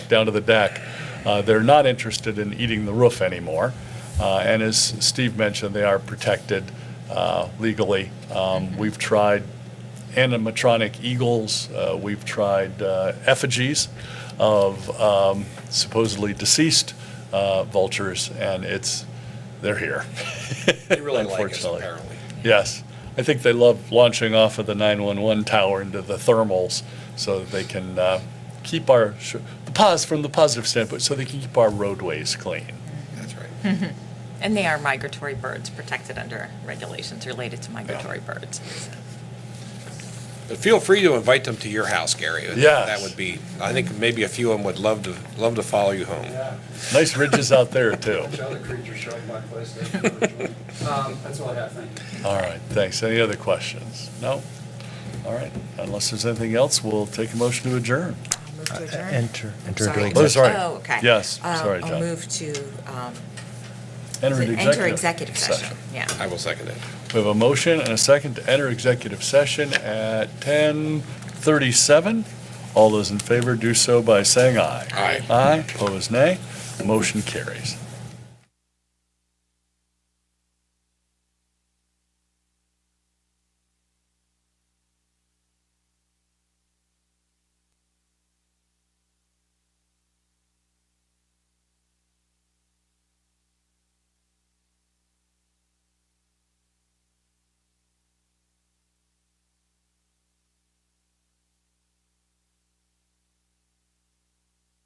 down to the deck. Uh, They're not interested in eating the roof anymore. Uh, And as Steve mentioned, they are protected uh, legally. Um, We've tried animatronic eagles, uh, we've tried uh, effigies of um, supposedly deceased uh, vultures, and it's, they're here. They really like us, Unfortunately. apparently. Yes. I think they love launching off of the 911 tower into the thermals so that they can uh, keep our, sh- the pos, from the positive standpoint, so they can keep our roadways clean. That's right. And they are migratory birds protected under regulations related to migratory birds. But feel free to invite them to your house, Gary. Yes. That would be, I think maybe a few of them would love to, love to follow you home. Nice ridges out there, too. Bunch of other creatures show up in my place. that I never joined. Um, That's all I have, thank you. All right, thanks. Any other questions? No? All right, unless there's anything else, we'll take a motion to adjourn. Move to adjourn? Enter, enter into Sorry. Oh, executive. sorry. Oh, okay. Yes, Um, sorry, I'll John. move to um, Enter into enter executive session. Yeah. I will second it. We have a motion and a second to enter executive session at 10:37. All those in favor do so by saying aye. Aye. Aye, opposed nay. Motion carries.